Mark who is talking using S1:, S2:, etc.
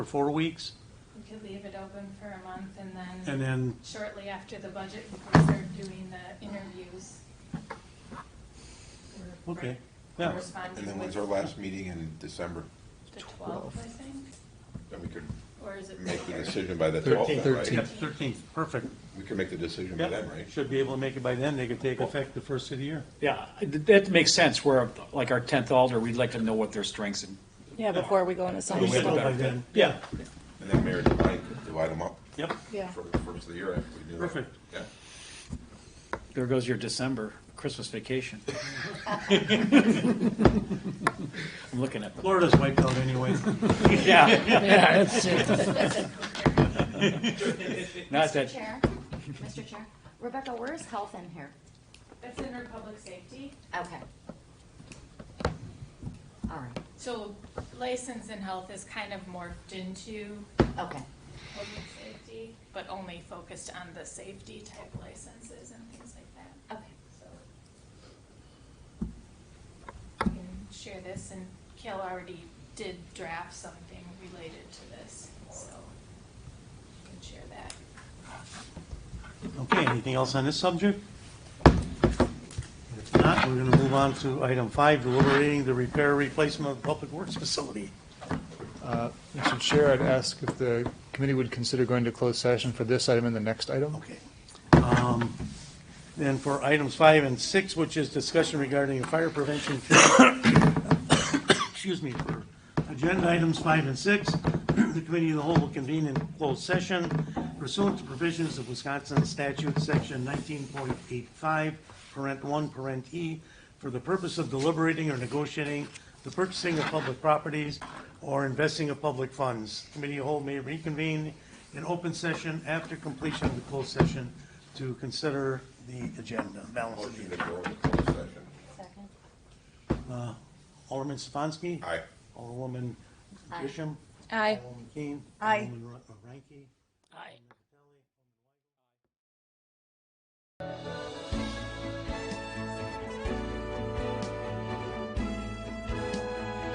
S1: for four weeks,
S2: We could leave it open for a month and
S1: and
S2: then
S1: then,
S2: shortly after the budget, we can start doing the interviews. We're-
S1: okay,
S2: we're
S1: yeah.
S2: Corresponding
S3: And then
S2: with
S3: when's our last meeting in December?
S2: the twelfth, I think,
S3: Then we could
S2: or is it?
S3: make the
S2: later?
S3: decision by the twelfth,
S1: Yep,
S3: right?
S1: thirteenth, perfect.
S3: We can make the decision by then,
S1: Yep,
S3: right?
S1: should be able to make it by then, they could take effect the first of the year.
S4: Yeah, that makes sense, where like our tenth alder, we'd like to know what their strengths and.
S5: Yeah, before we go into
S3: We should know
S1: By
S5: summer.
S3: better.
S1: then, Yeah,
S3: And then Mayor and I could divide them up
S1: yep,
S5: Yeah.
S3: for the first of the year after we do that.
S1: Perfect.
S3: Yeah.
S4: There goes your December Christmas vacation. I'm looking at them.
S1: Florida's wiped out anyway.
S4: Yeah,
S5: Yeah, that's it.
S4: not
S6: Mr.
S4: that,
S6: Chair, Mr. Chair, Rebecca, where is health in here?
S2: That's under public safety,
S6: Okay. All right,
S2: so license and health is kind of morphed into
S6: okay,
S2: public safety, but only focused on the safety type licenses and things like that,
S6: okay.
S2: so. I can share this, and Kale already did draft something related to this, so I can share that.
S1: Okay, anything else on this subject? If not, we're gonna move on to item five, deliberating the repair replacement of public works facility.
S7: Mr. Chair, I'd ask if the committee would consider going to closed session for this item and the next item.
S1: Okay. Um, Then for items five and six, which is discussion regarding a fire prevention, fee- excuse me, for agenda items five and six, the committee of the whole will convene in closed session pursuant to provisions of Wisconsin statute, section nineteen point eight five, parent one, parent E, for the purpose of deliberating or negotiating the purchasing of public properties or investing of public funds. Committee of the whole may reconvene in open session after completion of the closed session to consider the agenda, balance of the
S3: Motion to
S1: agenda.
S3: go into closed session.
S6: Second.
S1: Alderman Stefanski?
S3: Aye.
S1: Alderwoman
S6: Aye.
S1: Grisham?
S5: Aye.
S1: Alderwoman Keane?
S5: Aye.
S1: Alderwoman Re- Reinke?
S5: Aye.